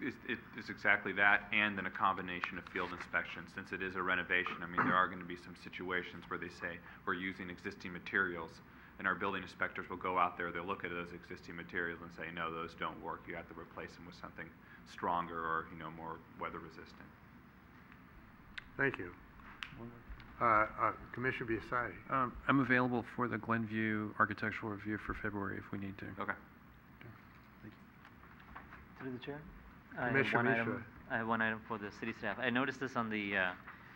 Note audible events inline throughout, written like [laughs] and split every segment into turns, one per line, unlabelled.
It's, it- it's exactly that, and then a combination of field inspection. Since it is a renovation, I mean, there are gonna be some situations where they say, we're using existing materials, and our building inspectors will go out there, they'll look at those existing materials and say, no, those don't work, you have to replace them with something stronger or, you know, more weather resistant.
Thank you. Uh, uh, Commissioner Biassiatti.
Um, I'm available for the Glenview Architectural Review for February if we need to.
Okay.
Through the chair? I have
Commissioner
one item-
Mishra.
I have one item for the city staff. I noticed this on the uh,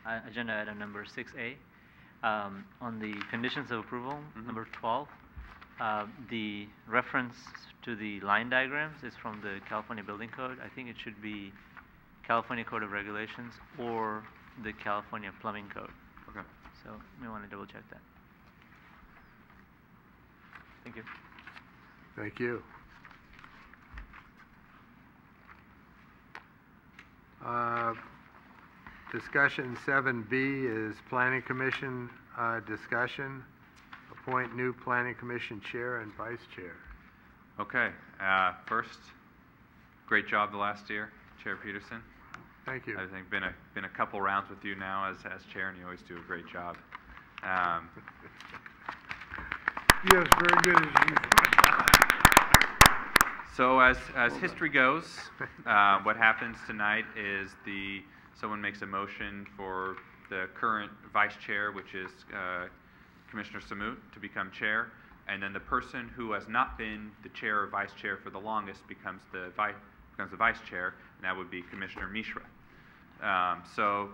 uh, agenda item number six A. um, On the conditions of approval,
Mhm.
number twelve, uh, the reference to the line diagrams is from the California Building Code. I think it should be California Code of Regulations or the California Plumbing Code.
Okay.
So we want to double check that. Thank you.
Thank you. Uh, Discussion seven B is Planning Commission uh, discussion. Appoint new Planning Commission Chair and Vice Chair.
Okay, uh, first, great job the last year, Chair Peterson.
Thank you.
I think been a, been a couple rounds with you now as, as chair, and you always do a great job. Um,
Yes, very good as
So as, as history goes, uh, what happens tonight is the, someone makes a motion for the current vice chair, which is uh, Commissioner Samut, to become chair. And then the person who has not been the chair or vice chair for the longest becomes the vi, becomes the vice chair, and that would be Commissioner Mishra. Um, So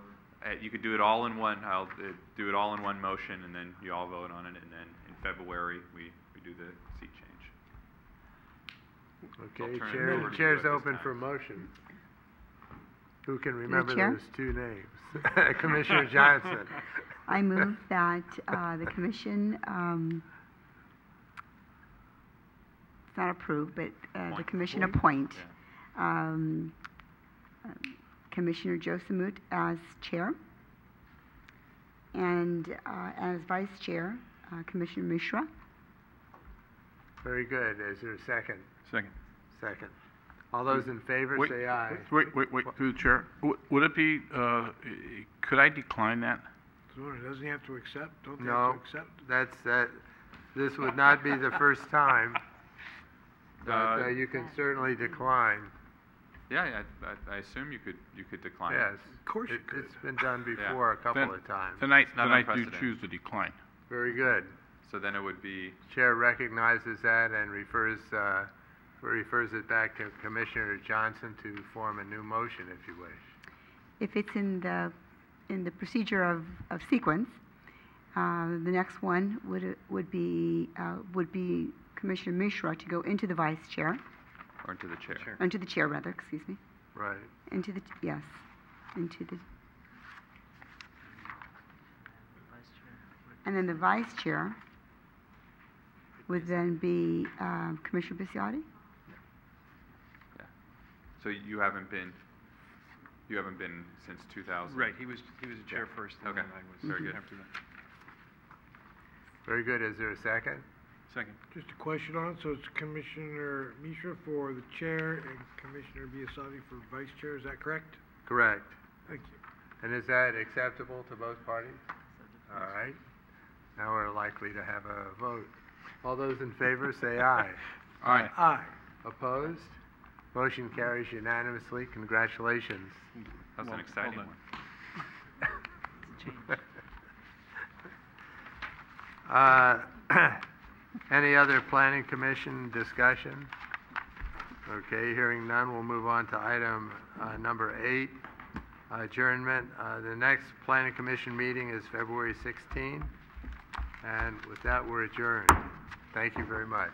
uh, you could do it all in one, I'll uh, do it all in one motion, and then you all vote on it, and then in February, we, we do the seat change.
Okay,
I'll turn it
Chair,
over to you
Chair's
at this
open
time.
for motion. Who can remember
Chair?
those two names? [laughs] Commissioner Johnson.
[laughs] I
[laughs]
move that uh, the commission, um, it's not approve, but uh, the
Appoint.
commission appoint um, um, Commissioner Joe Samut as chair, and uh, as vice chair, uh, Commissioner Mishra.
Very good. Is there a second?
Second.
Second. All those in favor,
Wait,
say aye.
Wait, wait, wait, through the chair. W- Would it be, uh, e- could I decline that?
Sure, doesn't he have to accept? Don't they
No,
have to accept?
that's, that, this would not be the first
[laughs]
time, but
Uh,
uh, you can certainly decline,
Yeah, I, I, I assume you could, you could decline.
yes.
Of course you
It-
could.
It's been done before a
Then-
couple of times.
Then I,
It's not
then I do
unprecedented.
choose to decline.
Very good.
So then it would be,
Chair recognizes that and refers, uh, refers it back to Commissioner Johnson to form a new motion, if you wish.
If it's in the, in the procedure of, of sequence, uh, the next one would, would be, uh, would be Commissioner Mishra to go into the vice chair,
or into the chair.
into the chair rather, excuse me.
Right.
Into the, yes, into the, and then the vice chair would then be um, Commissioner Bisiotti?
Yeah. So you haven't been, you haven't been since 2000?
Right, he was, he was the chair
Yeah.
first, and then
Okay.
I was
Very good.
after that.
Very good. Is there a second?
Second.
Just a question on it, so it's Commissioner Mishra for the chair and Commissioner Biassiatti for vice chair, is that correct?
Correct.
Thank you.
And is that acceptable to both parties? All right. Now we're likely to have a vote. All those in favor, say aye.
All right.
Aye.
Opposed? Motion carries unanimously. Congratulations.
That was an
Well,
exciting
hold on.
one.
Uh, [clears throat] Any other planning commission discussion? Okay, hearing none, we'll move on to item uh, number eight, adjournment. Uh, The next planning commission meeting is February 16, and with that, we're adjourned. Thank you very much.